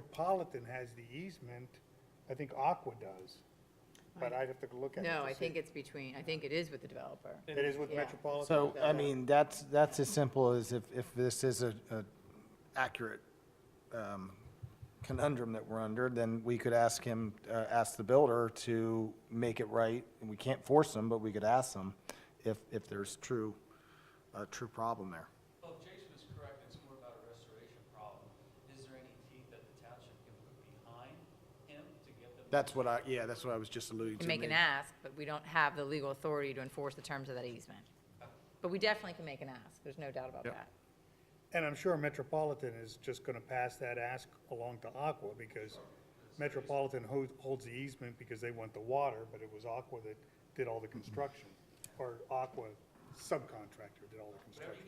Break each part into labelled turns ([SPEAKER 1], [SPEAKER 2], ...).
[SPEAKER 1] Metropolitan has the easement, I think Aqua does. But I'd have to look at it.
[SPEAKER 2] No,
[SPEAKER 1] to
[SPEAKER 2] I
[SPEAKER 1] see.
[SPEAKER 2] think it's between, I think it is with the developer.
[SPEAKER 1] It is with
[SPEAKER 2] Yeah.
[SPEAKER 1] Metropolitan?
[SPEAKER 3] So, I mean, that's, that's as simple as if, if this is a, a accurate um, conundrum that we're under, then we could ask him, uh, ask the builder to make it right. And we can't force them, but we could ask them if, if there's true, a true problem there.
[SPEAKER 4] Well, if Jason is correct, it's more about a restoration problem. Is there any teeth that the township can put behind him to get them?
[SPEAKER 3] That's what I, yeah, that's what I was just alluding to.
[SPEAKER 2] Can make an
[SPEAKER 3] Maybe-
[SPEAKER 2] ask, but we don't have the legal authority to enforce the terms of that easement. But we definitely can make an ask, there's no doubt about
[SPEAKER 3] Yep.
[SPEAKER 2] that.
[SPEAKER 1] And I'm sure Metropolitan is just gonna pass that ask along to Aqua, because Metropolitan ho- holds the easement because they want the water, but it was Aqua that did all the construction, or Aqua subcontractor did all the construction.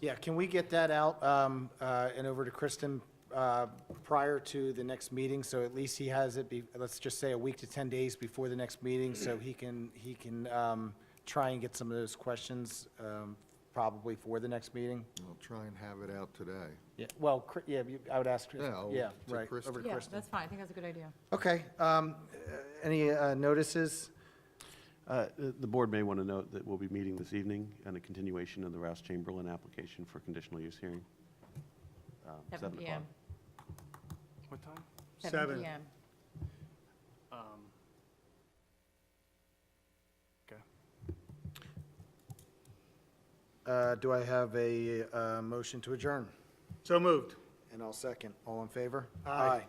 [SPEAKER 3] Yeah, can we get that out um, uh, and over to Kristen uh, prior to the next meeting? So at least he has it, be- let's just say a week to 10 days before the next meeting, so he can, he can um, try and get some of those questions um, probably for the next meeting?
[SPEAKER 5] I'll try and have it out today.
[SPEAKER 3] Yeah. Well, Cri- yeah, you- I would ask, Chris-
[SPEAKER 5] Yeah, I'll-
[SPEAKER 3] yeah,
[SPEAKER 5] to
[SPEAKER 3] right,
[SPEAKER 5] Kristen.
[SPEAKER 3] over to Kristen.
[SPEAKER 2] that's fine, I think that's a good idea.
[SPEAKER 3] Okay, um, uh, any uh, notices?
[SPEAKER 6] Uh, The the board may want to note that we'll be meeting this evening on a continuation of the Rouse Chamberlain application for conditional use hearing. um,
[SPEAKER 2] Seven
[SPEAKER 6] o'clock.
[SPEAKER 2] PM.
[SPEAKER 7] What time?
[SPEAKER 1] Seven.
[SPEAKER 2] PM.
[SPEAKER 7] Um, Okay.
[SPEAKER 3] Uh, Do I have a uh, motion to adjourn?
[SPEAKER 1] So moved.
[SPEAKER 3] And I'll second. All in favor?
[SPEAKER 1] Aye.